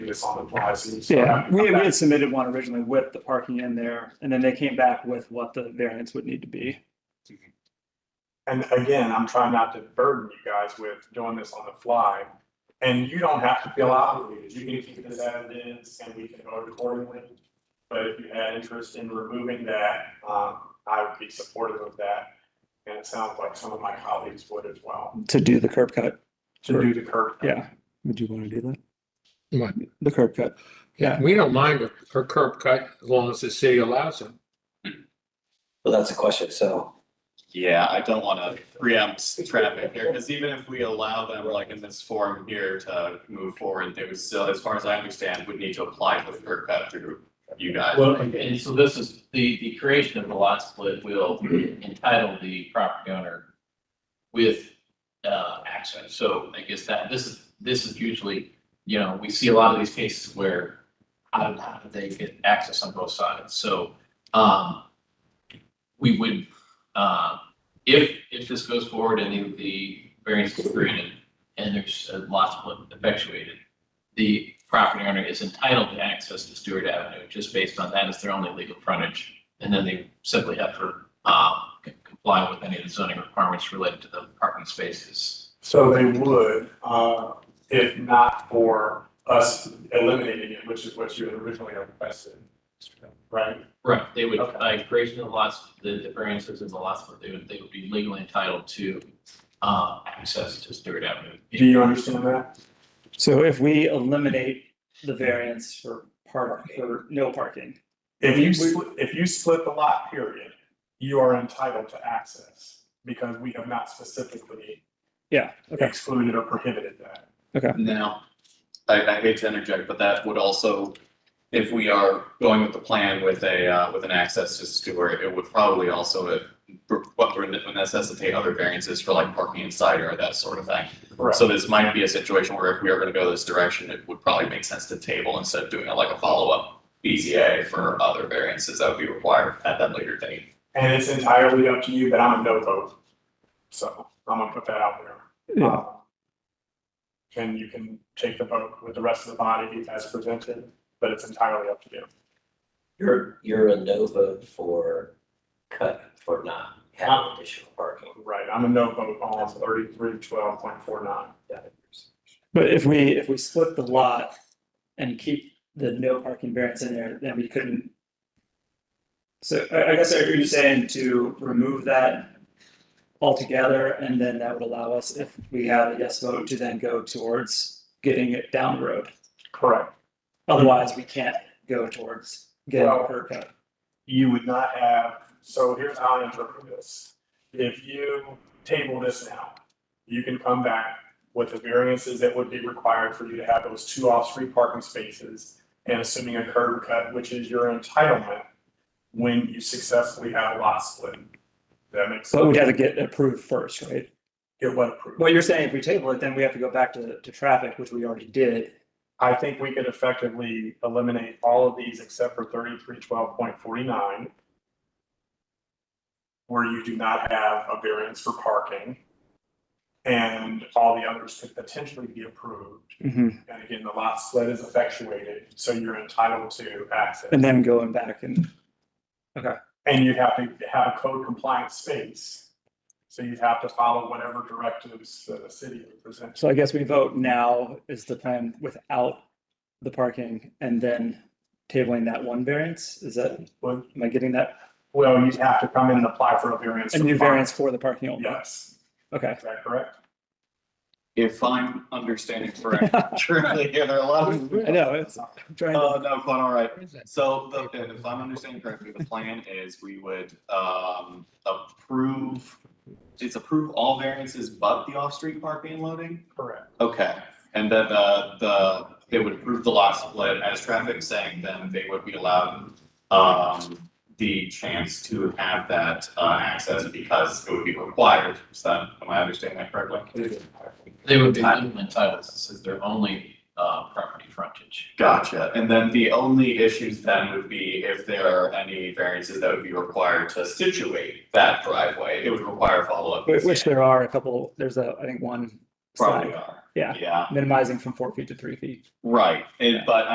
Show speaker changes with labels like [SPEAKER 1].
[SPEAKER 1] this on the fly, so. you-
[SPEAKER 2] Yeah, we we had submitted one originally with the parking in there, and then they came back with what the variance would need to be.
[SPEAKER 1] And again, I'm trying not to burden you guys with doing this on the fly. And you don't have to feel obligated. You can keep this as it is and we can vote accordingly. But if you had interest in removing that, um, I would be supportive of that. And it sounds like some of my colleagues would as well,
[SPEAKER 2] To do the curb cut,
[SPEAKER 1] to do the curb. cut.
[SPEAKER 2] yeah. Would you want to do that?
[SPEAKER 3] What?
[SPEAKER 2] The curb cut. Yeah.
[SPEAKER 3] We don't mind a a curb cut as long as the city allows it.
[SPEAKER 4] Well, that's a question, so.
[SPEAKER 5] Yeah, I don't want to preempt traffic here, because even if we allow them, like in this forum here, to move forward, they would still, as far as I understand, would need to apply for the curb cut through you guys.
[SPEAKER 6] Well, and so this is, the, the creation of the lot split will entitle the property owner with, uh, access. So I guess that, this is, this is usually, you know, we see a lot of these cases where how, how do they get access on both sides? So, um, we would, uh, if, if this goes forward and the, the variance is granted and there's a lot split effectuated, the property owner is entitled to access to Stewart Avenue, just based on that as their only legal frontage. And then they simply have to, um, c- comply with any of the zoning requirements related to the parking spaces.
[SPEAKER 1] So they would, uh, if not for us eliminating it, which is what you had originally requested. Right?
[SPEAKER 6] Right. They would,
[SPEAKER 1] Okay.
[SPEAKER 6] by creation of lots, the, the variances in the lots, they would, they would be legally entitled to, uh, access to Stewart Avenue.
[SPEAKER 1] Do you understand that?
[SPEAKER 2] So if we eliminate the variance for park, for no parking,
[SPEAKER 1] If you, split- if you split the lot period, you are entitled to access because we have not specifically
[SPEAKER 2] yeah, okay,
[SPEAKER 1] excluded or prohibited that.
[SPEAKER 5] Now, I, I hate to interject, but that would also, if we are going with the plan with a, uh, with an access to Stewart, it would probably also uh, re- what would necessitate other variances for like parking inside or that sort of thing.
[SPEAKER 1] Correct.
[SPEAKER 5] So this might be a situation where if we are gonna go this direction, it would probably make sense to table instead of doing a- like a follow-up BZA for other variances that would be required at that later date.
[SPEAKER 1] And it's entirely up to you, but I'm a no vote. So I'm gonna put that out there.
[SPEAKER 2] Yeah.
[SPEAKER 1] Uh, And you can take the vote with the rest of the body as presented, but it's entirely up to you.
[SPEAKER 4] You're, you're a no vote for cut, for not having additional parking.
[SPEAKER 1] Right, I'm a no vote on thirty-three twelve point four nine.
[SPEAKER 4] Got it.
[SPEAKER 2] but if we, if we split the lot and keep the no parking variance in there, then we couldn't. So I, I guess are you saying to remove that altogether, and then that would allow us, if we had a yes vote, to then go towards getting it down the road?
[SPEAKER 1] Correct.
[SPEAKER 2] Otherwise, we can't go towards getting a curb cut.
[SPEAKER 1] you would not have, so here's how I interpret this. If you table this now, you can come back with the variances that would be required for you to have those two off-street parking spaces and assuming a curb cut, which is your entitlement when you successfully have a lot split. That makes
[SPEAKER 2] But
[SPEAKER 1] sense.
[SPEAKER 2] we'd have to get approved first, right?
[SPEAKER 1] Get what approved.
[SPEAKER 2] What you're saying, if we table it, then we have to go back to, to traffic, which we already did.
[SPEAKER 1] I think we could effectively eliminate all of these except for thirty-three twelve point forty-nine. Where you do not have a variance for parking. And all the others could potentially be approved. And again, the lot split is effectuated, so you're entitled to access.
[SPEAKER 2] And then going back and,
[SPEAKER 1] And you have to have a code compliant space. So you'd have to follow whatever directives the city presents.
[SPEAKER 2] so I guess we vote now is the plan without the parking and then tabling that one variance? Is that,
[SPEAKER 1] Well,
[SPEAKER 2] am I getting that?
[SPEAKER 1] well, you'd have to come in and apply for a variance.
[SPEAKER 2] A
[SPEAKER 1] for
[SPEAKER 2] new
[SPEAKER 1] parking.
[SPEAKER 2] variance for the parking only?
[SPEAKER 1] Yes,
[SPEAKER 2] Okay.
[SPEAKER 1] is that correct?
[SPEAKER 5] If I'm understanding correctly, surely, yeah, there are a lot of.
[SPEAKER 2] I know, it's, Uh, I'm trying to,
[SPEAKER 5] Oh, no, quite all right.
[SPEAKER 3] Where is that?
[SPEAKER 5] So the, if I'm understanding correctly, the plan is we would, um, approve, it's approve all variances but the off-street parking and loading?
[SPEAKER 1] Correct.
[SPEAKER 5] Okay, and then, uh, the, they would approve the lot split as traffic saying then they would be allowed, um, the chance to have that, uh, access because it would be required. Is that, am I understanding that correctly?
[SPEAKER 6] They would be legally entitled, this is their only, uh, property frontage.
[SPEAKER 5] Gotcha. And then the only issues then would be if there are any variances that would be required to situate that driveway, it would require follow-up.
[SPEAKER 2] which there are a couple, there's a, I think one
[SPEAKER 5] probably are.
[SPEAKER 2] Yeah.
[SPEAKER 5] Yeah,
[SPEAKER 2] minimizing from four feet to three feet.
[SPEAKER 5] right, It- but